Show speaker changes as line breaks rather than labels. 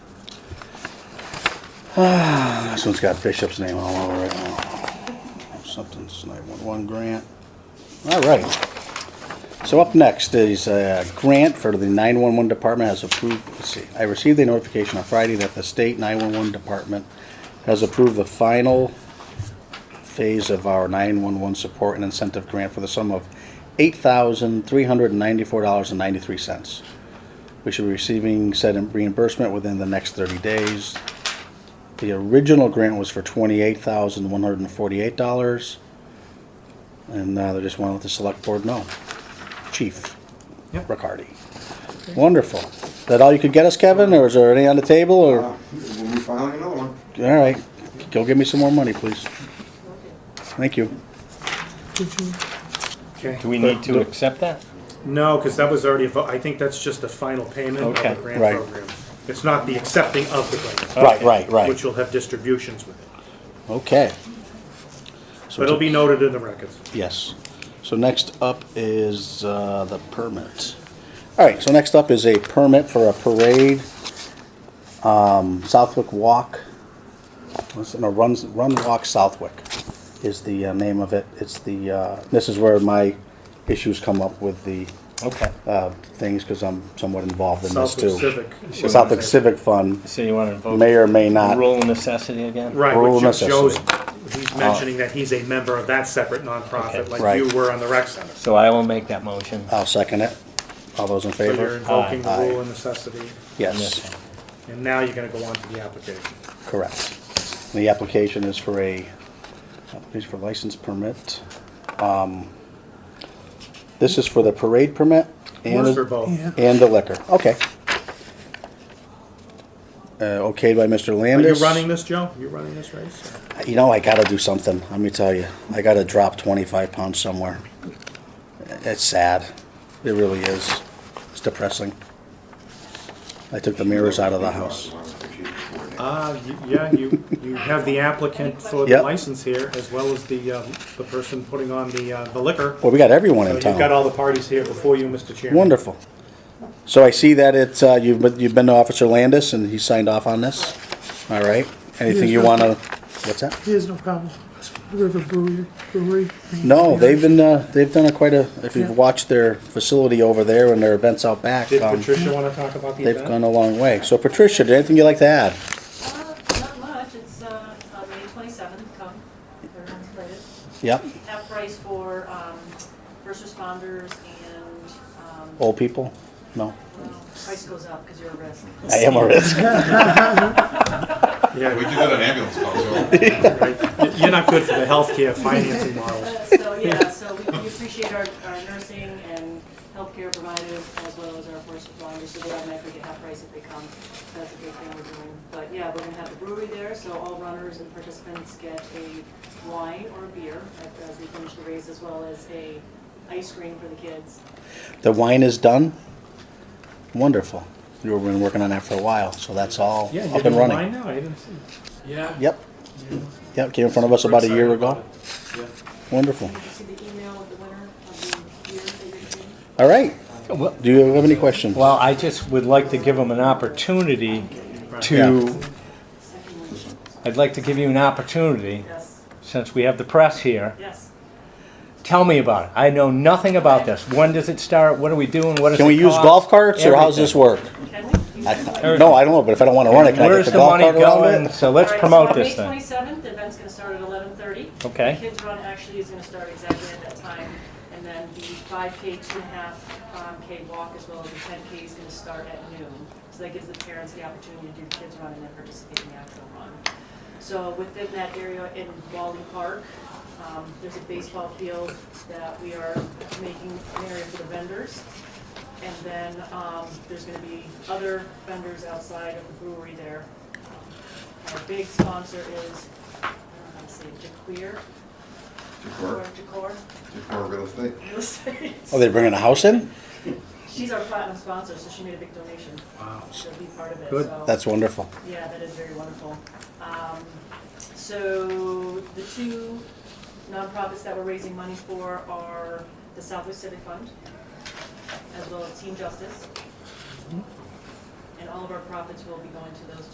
This one's got Bishop's name all over it. Oh, Something, it's 911 grant. All right. So up next is a grant for the 911 department has approved, let's see, I received a notification on Friday that the state 911 department has approved the final phase of our 911 support and incentive grant for the sum of $8,394.93. We should be receiving said reimbursement within the next 30 days. The original grant was for twenty-eight thousand one hundred and forty-eight dollars. And uh, they just want to let the select board know. Chief
Yep.
Riccardi. Wonderful. Is that all you could get us, Kevin, or is there any on the table, or?
Uh, We'll be filing another one.
All right, go get me some more money, please. Thank you.
Okay.
Do we need to accept that?
No, because that was already, a vo- I think that's just the final payment of
Okay.
the grant
Right.
program. It's not the accepting of the grant.
Right, right,
Which
right.
will have distributions with it.
Okay. So
But it'll be noted in the records.
Yes. So next up is uh, the permit. All right, so next up is a permit for a parade, um, Southwick Walk. What's it- No, Run, Run Walk Southwick is the uh, name of it. It's the, uh, this is where my issues come up with the
Okay.
uh, things, because I'm somewhat involved in this too.
Southwick Civic.
The Southwick Civic Fund
So you want to invoke
may or may not.
rule of necessity again?
Right,
Rural
which
necessity.
Joe's, he's mentioning that he's a member of that separate nonprofit,
Okay.
like
Right.
you were on the rec center.
So I will make that motion.
I'll second it. All those in
So you're
favor?
invoking the
Aye.
rule of necessity,
Yes,
and now you're gonna go on to the application.
correct. The application is for a, application for license permit. Um, This is for the parade permit and,
Works for both.
and the liquor. Okay. Uh, okayed by Mr.
Are you
Landis.
running this, Joe? You running this race?
You know, I gotta do something, let me tell you. I gotta drop twenty-five pounds somewhere. It's sad. It really is. It's depressing. I took the mirrors out of the house.
Uh, y- yeah, you, you have the applicant for the
Yep.
license here, as well as the, um, the person putting on the, uh, the liquor.
Well, we got everyone
So
in
you've got
town.
all the parties here before you, Mr. Chairman.
Wonderful. So I see that it's, uh, you've been, you've been to Officer Landis and he signed off on this. All right. Anything you wanna, what's that?
He has no problem. River Brewery. Brewery.
No, they've been, uh, they've done a quite a, if you've
Yeah.
watched their facility over there and their events out back,
Did
um,
Patricia wanna talk about the
they've
event?
gone a long way. So Patricia, did anything you'd like to add?
Uh, Not much, it's uh, on May twenty-seventh, come, everyone's invited.
Yep,
Half price for um, first responders and um,
old people? No?
well, price goes up because you're a risk.
I am a risk.
We
Yeah,
do that in ambulance calls,
right. Y- You're not good for the healthcare financing models.
Uh, So, yeah, so we we appreciate our our nursing and healthcare providers as well as our first responders, so they automatically get half price if they come. So That's a big thing we're doing. But yeah, we're gonna have the brewery there, so all runners and participants get a wine or a beer at- as they finish the race, as well as a ice cream for the kids.
The wine is done? Wonderful. You've been working on that for a while, so that's all
Yeah, you're
up and
doing
running.
mine now, I didn't see. Yeah.
Yep. Yep, came in front of us about a year ago. Wonderful.
Did you see the email with the winner of the beer that you're getting?
All right.
Well,
Do you have any questions?
well, I just would like to give them an opportunity to,
Second one.
I'd like to give you an opportunity,
Yes,
since we have the press here.
yes.
Tell me about it. I know nothing about this. When does it start? What are we doing? What does
Can we
it
use
cost?
golf carts or how's
Everything.
this work?
Can we?
I- I- No, I don't know, but if I don't want to run it, can I get
Where's
the
the
golf
money
cart around
going?
it?
So let's
All right,
promote this
So on May
thing.
twenty-seventh, the event's gonna start at eleven thirty.
Okay.
The kids run actually is gonna start exactly at that time, and then the five K, two and a half um, K walk, as well as the ten K is gonna start at noon. So that gives the parents the opportunity to do the kids run and then participate in the actual run. So within that area in Wally Park, um, there's a baseball field that we are making an area for the vendors. And then, um, there's gonna be other vendors outside of the brewery there. Our big sponsor is, I don't know how to say, Jaquir, or
Decor,
Jacor,
decor real estate.
real estate.
Oh, they're bringing a house in?
She's our platinum sponsor, so she made a big donation.
Wow.
She'll be part of it,
Good.
so.
That's wonderful.
Yeah, that is very wonderful. Um, So the two nonprofits that we're raising money for are the Southwest Civic Fund,
Mm-hmm.
as well as Team Justice. And all of our profits will be going to those two